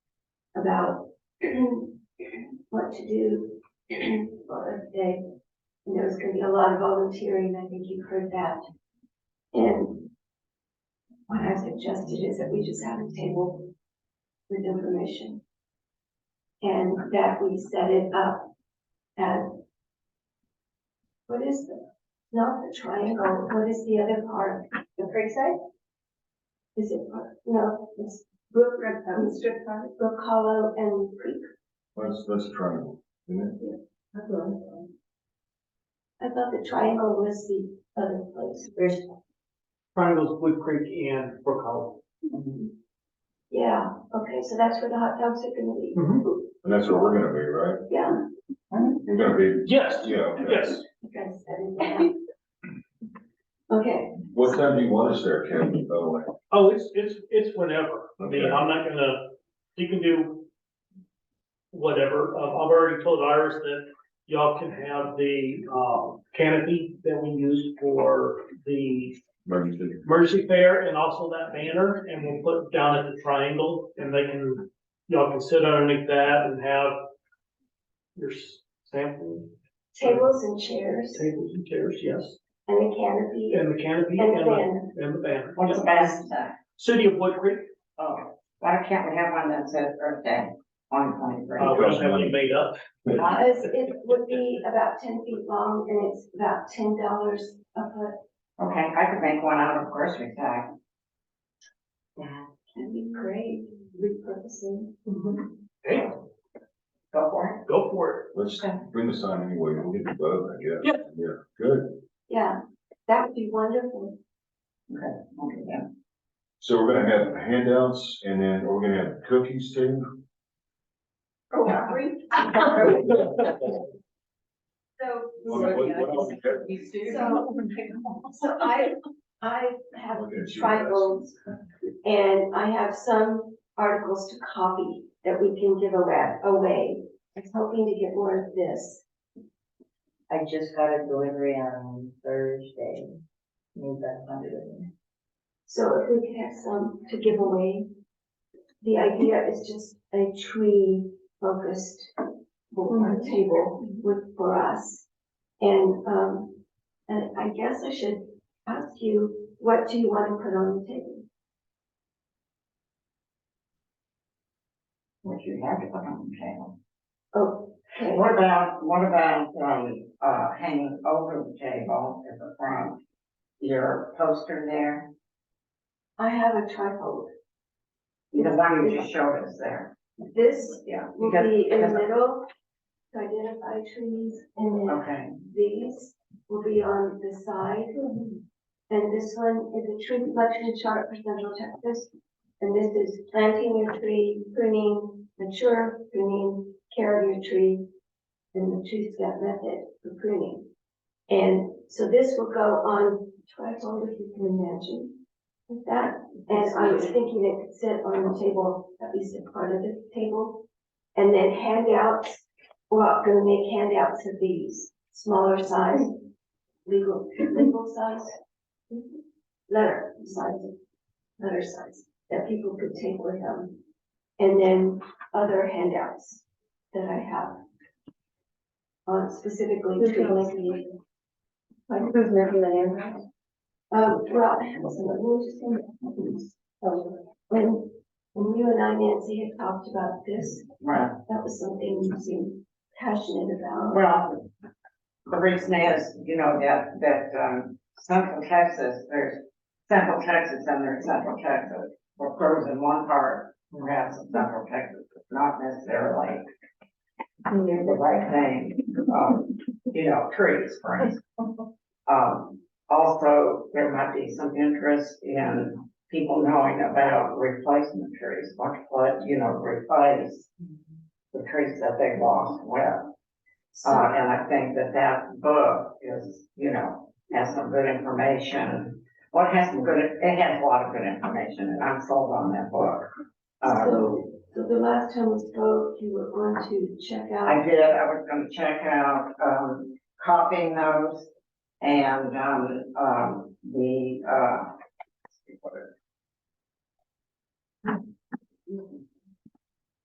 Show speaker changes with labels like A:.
A: about what to do for a day. And there was gonna be a lot of volunteering, I think you've heard that. And what I suggested is that we just have a table with information. And that we set it up as, what is the, not the triangle, what is the other part?
B: The Creekside?
A: Is it, part- no, it's Brook, um,
B: Strip park?
A: Brook Hollow and Creek.
C: That's, that's triangle, isn't it?
A: I thought the triangle was the other place.
B: There's,
D: Triangles, Wood Creek and Brook Hollow.
A: Yeah, okay, so that's where the hot dogs are gonna be.
C: And that's where we're gonna be, right?
A: Yeah.
C: We're gonna be,
D: Yes,
C: yeah. okay.
D: yes.
A: you guys said it, yeah. Okay,
C: What time do you want us there, Kevin, by the way?
D: Oh, it's, it's, it's whenever. I mean,
C: Okay.
D: I'm not gonna, you can do whatever. Um, I've already told Iris that y'all can have the, um, canopy that we used for the
C: Emergency.
D: Mercy Fair and also that banner, and we'll put it down at the triangle, and they can, y'all can sit underneath that and have your s- sample
A: tables and chairs
D: tables and chairs, yes,
A: and the canopy
D: and the canopy
A: and
D: and
A: the
D: the,
A: van.
D: and the banner.
B: what's the best, uh,
D: City of Wood Creek,
B: oh, why can't we have one that says Earth Day on twenty-three?
D: uh, we don't have any made up.
B: Huh?
A: Because it would be about ten feet long and it's about ten dollars a foot.
B: Okay, I could make one out of grocery bag. Yeah,
A: That'd be great, repurposing.
D: Hey,
B: go for
D: go for
C: Let's
B: Okay.
C: bring the sign anyway, we'll get the vote, I guess.
D: Yeah.
C: Yeah, good.
A: Yeah, that would be wonderful.
B: it. Okay, I'll do that.
C: So we're gonna have handouts and then are we gonna have cookies too?
A: Oh, hungry?
D: it.
A: So,
C: What- what- what else?
A: so, so I, I have
C: Look at you,
A: trifles. And I have some articles to copy that we can give away, away. I was hoping to get more of this.
E: I just got a delivery on Thursday. Need that funded.
A: So if we could have some to give away. The idea is just a tree focused board table with, for us. And, um, and I guess I should ask you, what do you want to put on the table?
B: What you have to put on the table.
A: Oh, okay.
B: What about, what about, um, uh, hanging over the table at the front? Your poster there,
A: I have a trifold.
B: the one you just showed us there,
A: This
B: yeah.
A: will
B: because-
A: be in the
B: because-
A: middle to identify trees, and then
B: Okay.
A: these will be on the side. And this one is a tree selection chart for Central Texas. And this is planting your tree, pruning, mature pruning, care of your tree, and the tree scout method for pruning. And so this will go on trifold, if you can imagine, with that. And I was thinking it could sit on the table, at least a part of the table. And then handouts, we're not gonna make handouts of these, smaller size, legal, legal size, letter size, letter size, that people could take with them. And then other handouts that I have. On specifically. trees.
E: Like, who's making the
A: Um, well, I have some interesting things. When, when you and I, Nancy, had talked about this,
B: Right.
A: that was something you seemed passionate about.
B: Well, the reason is, you know, that, that, um, Central Texas, there's Central Texas and there's Central Texas. What grows in one part, perhaps in Central Texas, is not necessarily
E: name?
B: the right thing, um, you know, trees, for instance. Um, also, there might be some interest in people knowing about replacement trees, much flood, you know, replace the trees that they lost well. Uh,
A: So,
B: and I think that that book is, you know, has some good information. Well, it has some good, it has a lot of good information, and I'm sold on that book. Uh,
A: so, so the last time we spoke, you were going to check
B: I
A: out,
B: did, I was gonna check out, um, copying those and, um, um, the, uh, what is